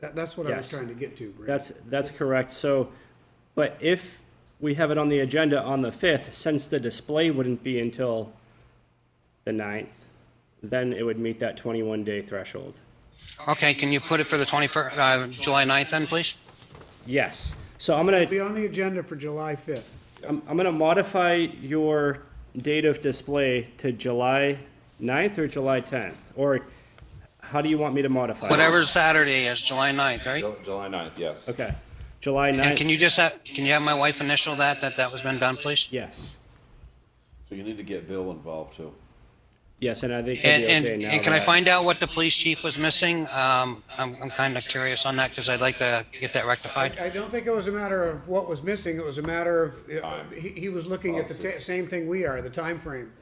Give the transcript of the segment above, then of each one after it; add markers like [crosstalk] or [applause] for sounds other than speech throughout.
That, that's what I was Yes. trying to get to, Brent. That's, that's correct. So, but if we have it on the agenda on the fifth, since the display wouldn't be until the ninth, then it would meet that twenty-one day threshold. Okay, can you put it for the 21st, uh, July 9th then, please? Yes. So I'm gonna, Be on the agenda for July fifth. I'm, I'm gonna modify your date of display to July 9th or July tenth? Or how do you want me to modify? it? Whatever Saturday is, July 9th, right? Ju- July 9th, yes. Okay. July And can ninth, you just, have- can you have my wife initial that, that that was been done, please? yes. So you need to get Bill involved too. Yes, and I think And, he'll be okay and, now and can I that- find out what the police chief was missing? Um, I'm, I'm kind of curious on that because I'd like to get that rectified. I don't think it was a matter of what was missing, it was a matter of, uh, he, he was looking at the ta- same thing we are, the time frame.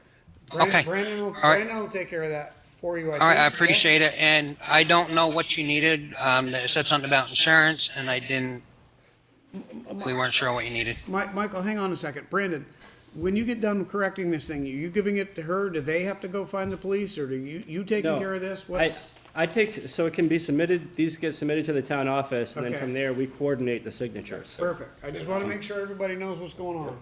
Brandon- Okay. Brandon will, All right. Brandon will take care of that for you. All right, I appreciate it. And I don't know what you needed. Um, it said something about insurance and I didn't, we weren't sure what you needed. Mi- Michael, hang on a second. Brandon, when you get done correcting this thing, are you giving it to her? Do they have to go find the police or do you, you taking No. care of this? I, What's, I take, so it can be submitted, these get submitted to the town office, and then Okay. from there, we coordinate the signatures. perfect. I just want to make sure everybody knows what's going on.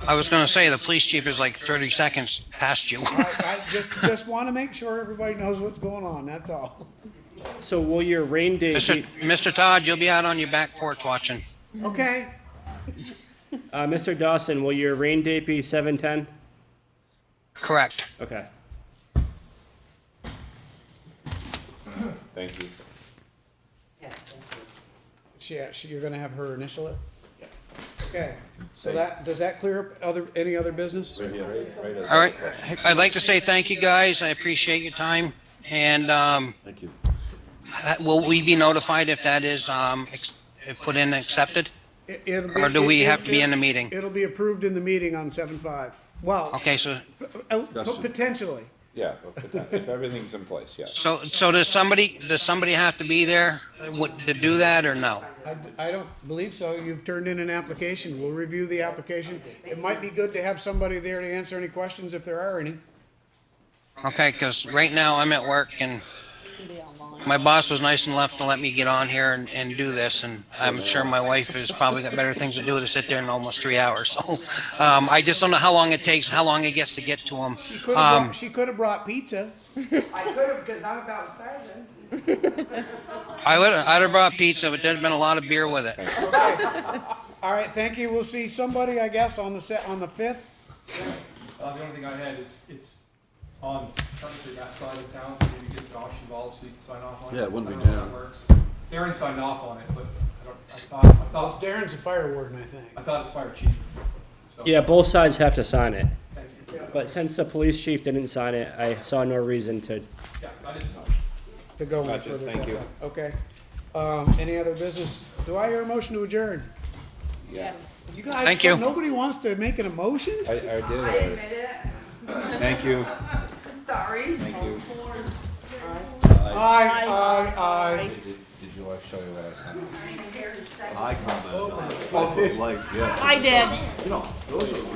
I was gonna say, the police chief is like thirty seconds past you. I, I just, just want to make sure everybody knows what's going on, that's all. So will your rain date Mr. be, Mr. Todd, you'll be out on your back porch watching. Okay, uh, Mr. Dawson, will your rain date be seven ten? Correct. Okay. Thank you. she, she, you're gonna have her initial it? Okay, so that, does that clear up other, any other business? All right, I'd like to say thank you, guys. I appreciate your time. And, um, Thank you. uh, will we be notified if that is, um, ex- put in and accepted? It- it'll be- Or do we it- have to be in the it- meeting? It'll be approved in the meeting on seven five. Well, Okay, so, p- uh, potentially. Yeah, but for that, if everything's in place, yes. so, so does somebody, does somebody have to be there uh, what- to do that or no? I, I don't believe so. You've turned in an application. We'll review the application. It might be good to have somebody there to answer any questions if there are any. Okay, because right now I'm at work and my boss was nice enough to let me get on here and, and do this. And I'm sure my wife has probably got better things to do to sit there in almost three hours. [laughs] So um, I just don't know how long it takes, how long it gets to get to them. She could have Um, brought, she could have brought pizza. I could have, because I'm about starving. I would, I'd have brought pizza, but there's been a lot of beer with it. All right, thank you. We'll see somebody, I guess, on the set, on the fifth. Uh, the only thing I had is, it's on technically that side of town, so maybe get Josh involved so you can sign off on it. Yeah, it wouldn't I be don't know if Darren. that works. Darren signed off on it, but I don't, I thought, I thought, Darren's a fire warden, I think. I thought it was fire chief. So, Yeah, both sides have to sign it, thank you. but since the police chief didn't sign it, I saw no reason to. Yeah, I just, To go any further. Thank you. Okay. Um, any other business? Do I hear a motion to adjourn? Yes. You guys, Thank you. Nobody wants to make an emotion? I, I did it I already. admit it, Thank you. I'm sorry. Thank you. Aye, aye, aye. Did, did your wife show you Oh, what I sent? I'm here in second. I commented on it. I Oh, was like, yeah, I did. you know, those are